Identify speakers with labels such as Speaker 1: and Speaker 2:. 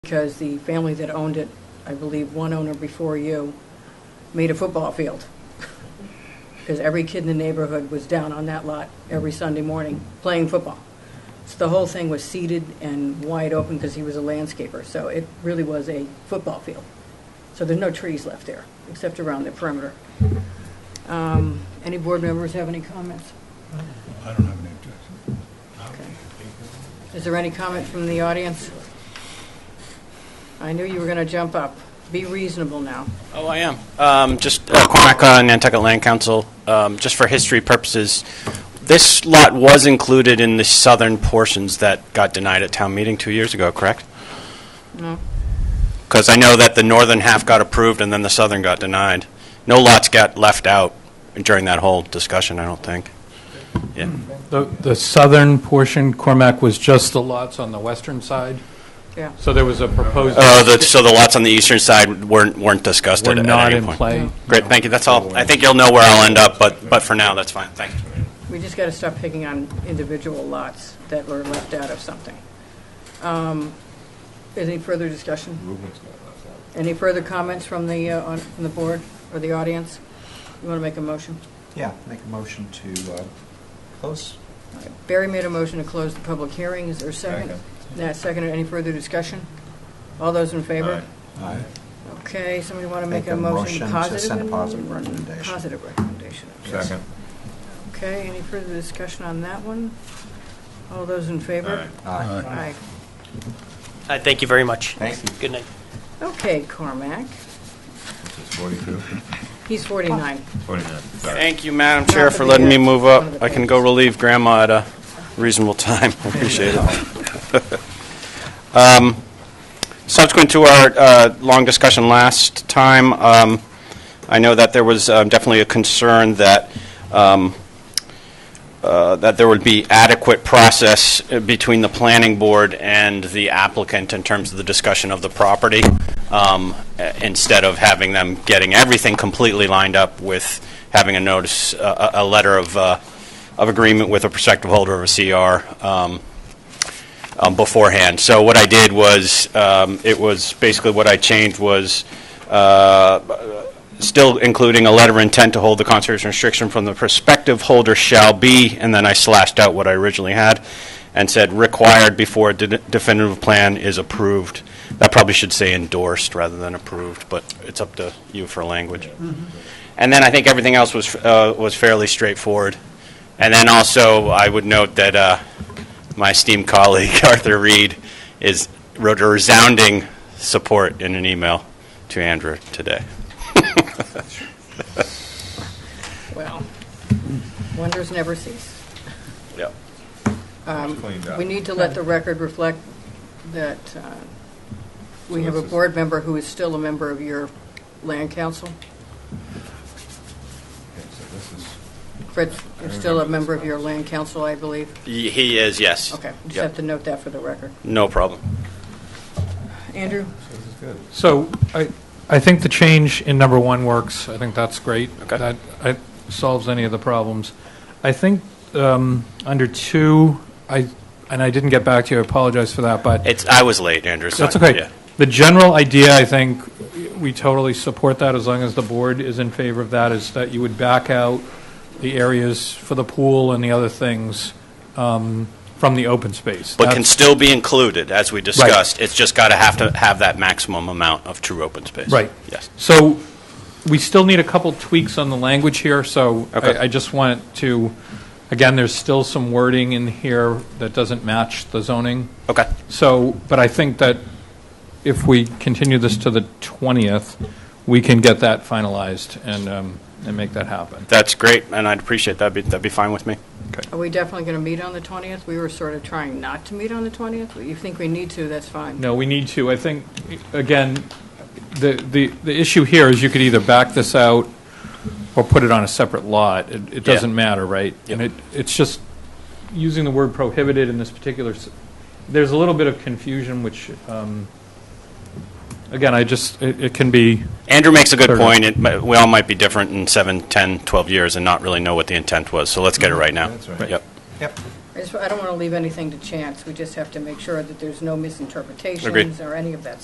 Speaker 1: because the family that owned it, I believe one owner before you, made a football field. Because every kid in the neighborhood was down on that lot every Sunday morning playing football. So the whole thing was seeded and wide open because he was a landscaper, so it really was a football field. So there's no trees left there, except around the perimeter. Um, Any board members have any comments?
Speaker 2: I don't have any objection.
Speaker 1: Okay. Is there any comment from the audience? I knew you were going to jump up. Be reasonable now.
Speaker 3: Oh, I am. Um, Just uh, Cormac uh, Nantucket Land Council, um, just for history purposes, this lot was included in the southern portions that got denied at town meeting two years ago, correct?
Speaker 1: No?
Speaker 3: Because I know that the northern half got approved and then the southern got denied. No lots got left out during that whole discussion, I don't think. Yeah.
Speaker 4: The the southern portion, Cormac, was just the lots on the western side,
Speaker 1: Yeah.
Speaker 4: so there was a proposed...
Speaker 3: Oh, the- So the lots on the eastern side weren't weren't discussed
Speaker 4: Uh, Were
Speaker 3: at at
Speaker 4: not
Speaker 3: any
Speaker 4: in
Speaker 3: point?
Speaker 4: play.
Speaker 3: Great, thank you, that's all. I think you'll know where I'll end up, but but for now, that's fine, thanks.
Speaker 1: We just got to stop picking on individual lots that were left out of something. Um, Any further discussion? Any further comments from the, uh, on- from the board or the audience? You want to make a motion?
Speaker 5: Yeah, make a motion to uh, close.
Speaker 1: All right. Barry made a motion to close the public hearing. Is there a second?
Speaker 5: Second.
Speaker 1: Nat seconded. Any further discussion? All those in favor?
Speaker 5: Aye.
Speaker 1: Okay, somebody want to make a motion
Speaker 5: to
Speaker 1: positive?
Speaker 5: send a positive recommendation.
Speaker 1: Positive recommendation, okay. Okay, any further discussion on that one? All those in favor?
Speaker 5: Aye.
Speaker 2: Aye.
Speaker 1: Aye.
Speaker 6: Uh, Thank you very much.
Speaker 5: Thank you.
Speaker 6: Good night.
Speaker 1: Okay, Cormac.
Speaker 2: Forty-two?
Speaker 1: He's 49.
Speaker 2: Forty-nine,
Speaker 3: Thank you, Madam
Speaker 1: Not
Speaker 3: Chair,
Speaker 1: the
Speaker 3: for letting me
Speaker 1: biggest,
Speaker 3: move
Speaker 1: one of
Speaker 3: up.
Speaker 1: the
Speaker 3: I can go
Speaker 1: biggest.
Speaker 3: relieve Grandma at a reasonable time. I appreciate it. Um, Subsequent to our uh, long discussion last time, um, I know that there was uh, definitely a concern that, um, uh, that there would be adequate process uh, between the planning board and the applicant in terms of the discussion of the property, um, uh, instead of having them getting everything completely lined up with having a notice, a, a a letter of, uh, of agreement with a prospective holder of a CR, um, um, beforehand. So what I did was, um, it was, basically what I changed was, uh, still including a letter of intent to hold the conservation restriction from the prospective holder shall be, and then I slashed out what I originally had and said required before a de- definitive plan is approved. That probably should say endorsed rather than approved, but it's up to you for language. And then I think everything else was, uh, was fairly straightforward. And then also, I would note that, uh, my esteemed colleague Arthur Reed is, wrote a resounding support in an email to Andrew today.
Speaker 1: Well, wonders never cease.
Speaker 3: Yep.
Speaker 1: Um,
Speaker 2: cleaned up.
Speaker 1: We need to let the record reflect that uh, we
Speaker 2: So
Speaker 1: have
Speaker 2: this
Speaker 1: a
Speaker 2: is-
Speaker 1: board member who is still a member of your land council. Fred is still a member of your land council, I believe.
Speaker 3: He is, yes.
Speaker 1: Okay, just
Speaker 3: Yep.
Speaker 1: have to note that for the record.
Speaker 3: No problem.
Speaker 1: Andrew?
Speaker 2: This is good.
Speaker 4: So I I think the change in number one works. I think that's great.
Speaker 3: Okay.
Speaker 4: That I- solves any of the problems. I think um, under two, I and I didn't get back to you, I apologize for that, but...
Speaker 3: It's, I was late, Andrew. so-
Speaker 4: That's okay.
Speaker 3: yeah.
Speaker 4: The general idea, I think, we totally support that as long as the board is in favor of that, is that you would back out the areas for the pool and the other things um, from the open space.
Speaker 3: But can
Speaker 4: That's-
Speaker 3: still be included, as we discussed. It's just got to have to have that maximum amount of true open space.
Speaker 4: Right.
Speaker 3: Yes.
Speaker 4: So we still need a couple tweaks on the language here, so
Speaker 3: Okay.
Speaker 4: I I just want to, again, there's still some wording in here that doesn't match the zoning.
Speaker 3: Okay.
Speaker 4: So, but I think that if we continue this to the 20th, we can get that finalized and, um, and make that happen.
Speaker 3: That's great, and I'd appreciate that. Be- That'd be fine with me.
Speaker 1: Are we definitely going to meet on the 20th? We were sort of trying not to meet on the 20th. If you think we need to, that's fine.
Speaker 4: No, we need to, I think, again, the, the, the issue here is you could either back this out or put it on a separate lot. It, it doesn't matter, right? And it, it's just, using the word prohibited in this particular, s- there's a little bit of confusion, which, um, again, I just, it it can be,
Speaker 3: Andrew makes a good
Speaker 4: Sure.
Speaker 3: point. It mi- We all might be different in seven, ten, twelve years and not really know what the intent was, so let's get it right now.
Speaker 2: That's right.
Speaker 3: Yep.
Speaker 5: Yep.
Speaker 1: I just, I don't want to leave anything to chance. We just have to make sure that there's no misinterpretations or any of that